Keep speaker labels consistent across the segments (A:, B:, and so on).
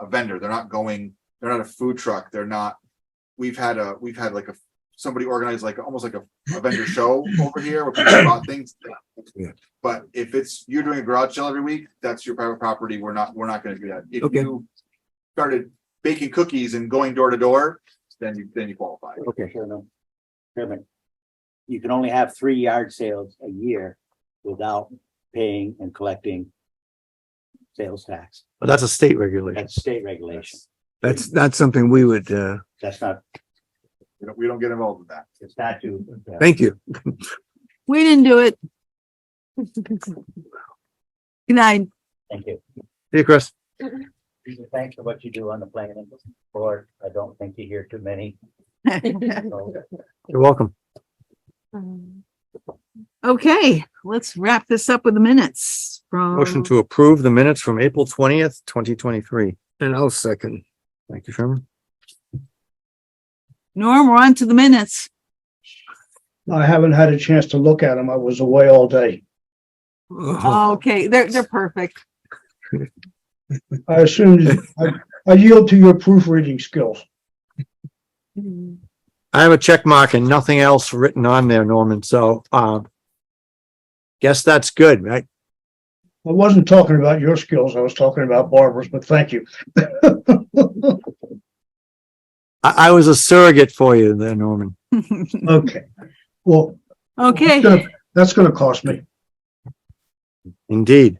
A: a vendor. They're not going, they're not a food truck. They're not. We've had a, we've had like a, somebody organized like, almost like a, a vendor show over here where people bought things.
B: Yeah.
A: But if it's, you're doing a garage sale every week, that's your private property. We're not, we're not gonna do that. If
B: Okay.
A: you started baking cookies and going door to door, then you, then you qualify.
B: Okay,
C: Chairman, Chairman, you can only have three yard sales a year without paying and collecting sales tax.
D: But that's a state regulation.
C: That's state regulation.
B: that's not something we would, uh,
C: That's not,
A: We don't, we don't get involved in that.
C: it's not you.
B: thank you.
E: We didn't do it. Good night.
C: Thank you.
D: Hey, Chris.
C: Thanks for what you do on the planning board. I don't think you hear too many. so-
D: You're welcome.
E: Okay, let's wrap this up with the minutes from.
D: Motion to approve the minutes from April twentieth, twenty twenty-three.
B: And I'll second.
D: Thank you, Sherman.
E: Norm, we're on to the minutes.
F: I haven't had a chance to look at them. I was away all day.
E: Uh-huh.
B: Oh,
E: Okay, they're, they're perfect.
F: I assume, I I yield to your proofreading skills.
D: I have a check mark and nothing else written on there, Norman, so, um, guess that's good, right?
F: I wasn't talking about your skills. I was talking about Barbara's, but thank you.
D: I, I was a surrogate for you there, Norman.
F: Okay. Well. that's
E: Okay,
F: gonna- That's going to cost me.
D: Indeed.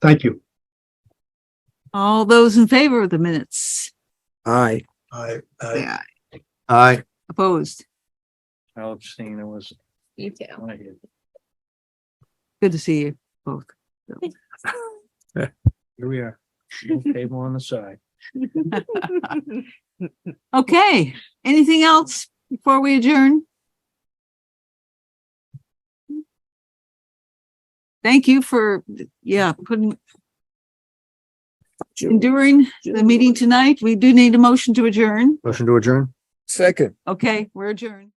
F: Thank you.
E: all those in favor of the minutes?
D: Aye.
F: I,
E: Say aye.
D: Aye.
E: Opposed?
C: I'll abstain. It was.
G: You too.
E: Good to see you both.
C: Here we are. Table on the side.
E: Okay, anything else before we adjourn? Thank you for, yeah, putting enduring the meeting tonight. We do need a motion to adjourn.
D: Motion to adjourn?
B: second.
E: Okay, we're adjourned.